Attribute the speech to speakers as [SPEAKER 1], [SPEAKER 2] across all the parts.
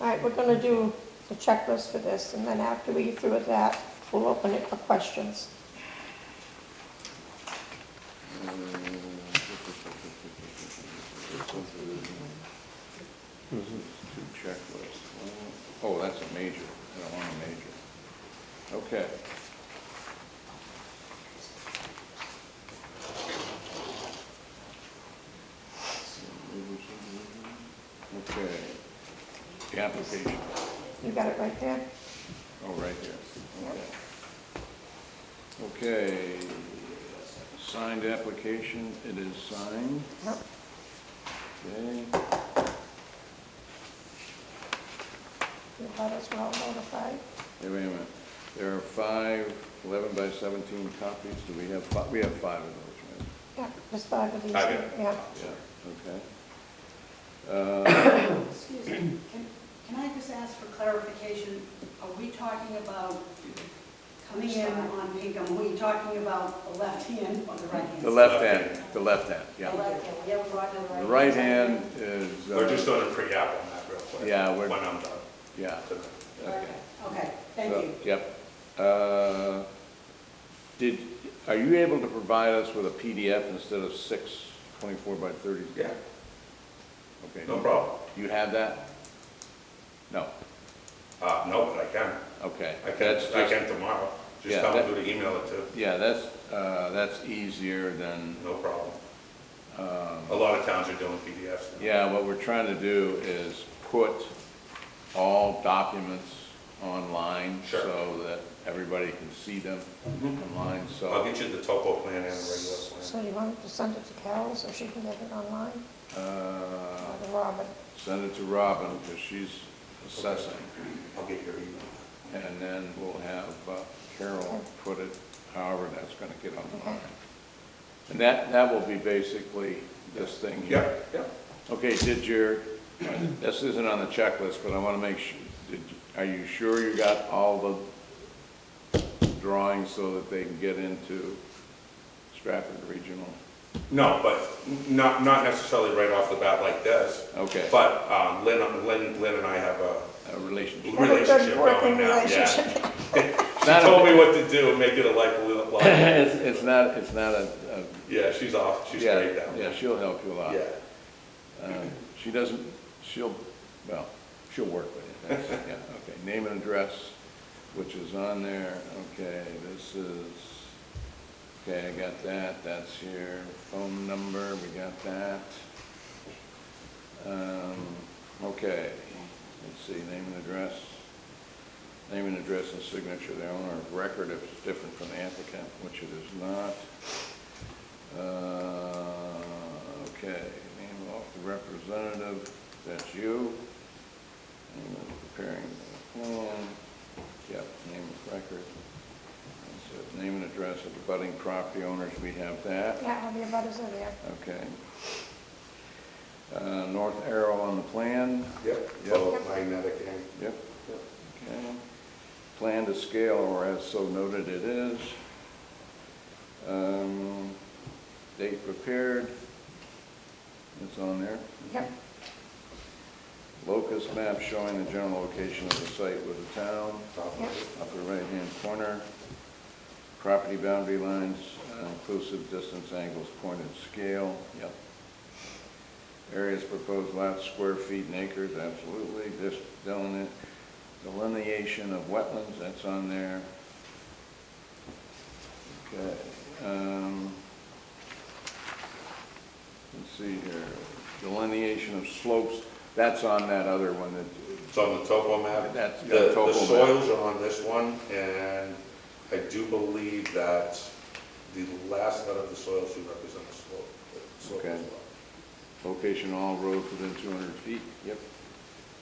[SPEAKER 1] All right, we're gonna do the checklist for this, and then after we get through with that, we'll open it for questions.
[SPEAKER 2] Two checklists. Oh, that's a major. I don't want a major. Okay. Okay. The application.
[SPEAKER 1] You got it right there?
[SPEAKER 2] Oh, right here, okay. Okay, signed application, it is signed,
[SPEAKER 1] Yep.
[SPEAKER 2] okay,
[SPEAKER 1] You got us well notified.
[SPEAKER 2] Hey, wait a minute. There are five 11 by seventeen copies, do we have, fi- we have five of those,
[SPEAKER 1] Yeah, there's five of these.
[SPEAKER 3] Five, yeah.
[SPEAKER 1] Yeah.
[SPEAKER 2] right? Yeah. Okay. Uh,
[SPEAKER 4] Excuse me, can, can I just ask for clarification? Are we talking about coming in on Pinkham, are we talking about the left hand or the right hand?
[SPEAKER 2] Uh, The left hand, the left hand,
[SPEAKER 4] The
[SPEAKER 2] yeah.
[SPEAKER 4] left hand, yeah, we're on the right
[SPEAKER 2] The
[SPEAKER 4] hand.
[SPEAKER 2] right hand is,
[SPEAKER 3] We're just
[SPEAKER 2] uh,
[SPEAKER 3] doing a pre-app on that real quick.
[SPEAKER 2] Yeah, we're-
[SPEAKER 3] When I'm done.
[SPEAKER 2] yeah,
[SPEAKER 3] tonight.
[SPEAKER 2] okay.
[SPEAKER 4] Okay, thank
[SPEAKER 2] So,
[SPEAKER 4] you.
[SPEAKER 2] Yep. Uh, Did, are you able to provide us with a PDF instead of six 24 by 30?
[SPEAKER 3] Yeah,
[SPEAKER 2] Okay.
[SPEAKER 3] no problem.
[SPEAKER 2] You have that? No,
[SPEAKER 3] Uh, no, but I can.
[SPEAKER 2] okay.
[SPEAKER 3] I can,
[SPEAKER 2] That's
[SPEAKER 3] I
[SPEAKER 2] just-
[SPEAKER 3] can tomorrow. Just
[SPEAKER 2] Yeah,
[SPEAKER 3] tell
[SPEAKER 2] that-
[SPEAKER 3] them who to email it to.
[SPEAKER 2] Yeah, that's, uh, that's easier than,
[SPEAKER 3] No problem. A lot of towns are doing PDFs. now.
[SPEAKER 2] Um, yeah, what we're trying to do is put all documents online
[SPEAKER 3] Sure. Mm-hmm.
[SPEAKER 2] so that everybody can see them online, so.
[SPEAKER 3] I'll get you the topo plan and the regular
[SPEAKER 1] So
[SPEAKER 3] plan.
[SPEAKER 1] you want to send it to Carol so she can get it online,
[SPEAKER 2] Uh,
[SPEAKER 1] or to Robin?
[SPEAKER 2] send it to Robin, because she's assessing,
[SPEAKER 3] I'll get your email.
[SPEAKER 2] and then we'll have uh, Carol put it however that's gonna get online. And that, that will be basically this thing here.
[SPEAKER 3] Yeah, yeah.
[SPEAKER 2] Okay, did your, this isn't on the checklist, but I wanna make sure, did, are you sure you got all the drawings so that they can get into Stratford Regional?
[SPEAKER 3] No, but n- not, not necessarily right off the bat like this.
[SPEAKER 2] Okay.
[SPEAKER 3] But, um, Lynn, Lynn, Lynn and I have a
[SPEAKER 2] A relationship?
[SPEAKER 1] Have a
[SPEAKER 3] relationship
[SPEAKER 1] good
[SPEAKER 3] going
[SPEAKER 1] working
[SPEAKER 3] now, yeah.
[SPEAKER 1] relationship.
[SPEAKER 2] It's
[SPEAKER 3] She
[SPEAKER 2] not a-
[SPEAKER 3] told me what to do and make it a life a little life.
[SPEAKER 2] It's, it's not, it's not a, a
[SPEAKER 3] Yeah, she's off, she's
[SPEAKER 2] Yeah,
[SPEAKER 3] great down
[SPEAKER 2] Yeah,
[SPEAKER 3] there.
[SPEAKER 2] she'll help you a lot.
[SPEAKER 3] Yeah,
[SPEAKER 2] Uh, She doesn't, she'll, well, she'll work with it. That's- Yeah, okay. Name and address, which is on there. Okay, this is, okay, I got that. That's here. Phone number, we got that. Um, Okay, let's see, name and address. Name and address and signature of the owner of record if it's different from the applicant, which it is not. Uh, Okay, name off the representative, that's you. Name of preparing the plan, yep, name of record. That's it. Name and address of the budding property owners, we have that,
[SPEAKER 1] Yeah, all the abutters are there.
[SPEAKER 2] okay. Uh, North arrow on the plan,
[SPEAKER 3] yep,
[SPEAKER 2] Yep.
[SPEAKER 3] Well, magnetic and,
[SPEAKER 2] yep,
[SPEAKER 3] yep.
[SPEAKER 2] okay. Plan to scale, or as so noted it is. Um, Date prepared, it's on there.
[SPEAKER 1] Yep,
[SPEAKER 2] Locust map showing the general location of the site with the town,
[SPEAKER 3] top
[SPEAKER 1] yep,
[SPEAKER 3] of it.
[SPEAKER 2] upper right-hand corner, property boundary lines, uh, inclusive distance angles, point and scale, yep. Areas proposed lots, square feet and acres, absolutely, this deline- delineation of wetlands, that's on there. Okay, um, let's see here, delineation of slopes, that's on that other one that,
[SPEAKER 3] It's on the topo map.
[SPEAKER 2] That's- yeah,
[SPEAKER 3] The,
[SPEAKER 2] topo
[SPEAKER 3] the
[SPEAKER 2] map.
[SPEAKER 3] soils are on this one, and I do believe that the last letter of the soil should represent the slope, the slope as
[SPEAKER 2] Okay.
[SPEAKER 3] well.
[SPEAKER 2] Location all roads within 200 feet. Yep.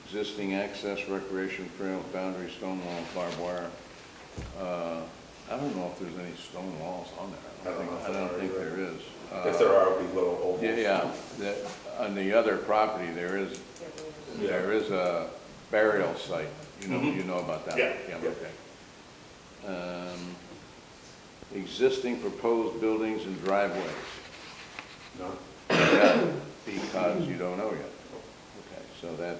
[SPEAKER 2] Existing access, recreation trails, boundary, stone wall, barbed wire. Uh, I don't know if there's any stone walls on there.
[SPEAKER 3] I don't know if
[SPEAKER 2] think- I don't
[SPEAKER 3] there
[SPEAKER 2] think
[SPEAKER 3] are
[SPEAKER 2] there is.
[SPEAKER 3] If
[SPEAKER 2] Uh,
[SPEAKER 3] there are, it'll be little ovals.
[SPEAKER 2] Yeah, yeah, The- on the other property, there is,
[SPEAKER 3] Yeah.
[SPEAKER 2] there is a burial site. You know,
[SPEAKER 3] Mhm.
[SPEAKER 2] you know about that?
[SPEAKER 3] Yeah, yeah.
[SPEAKER 2] okay. Um, Existing proposed buildings and driveways.
[SPEAKER 3] No?
[SPEAKER 2] Yeah, because you don't know yet. Okay, so that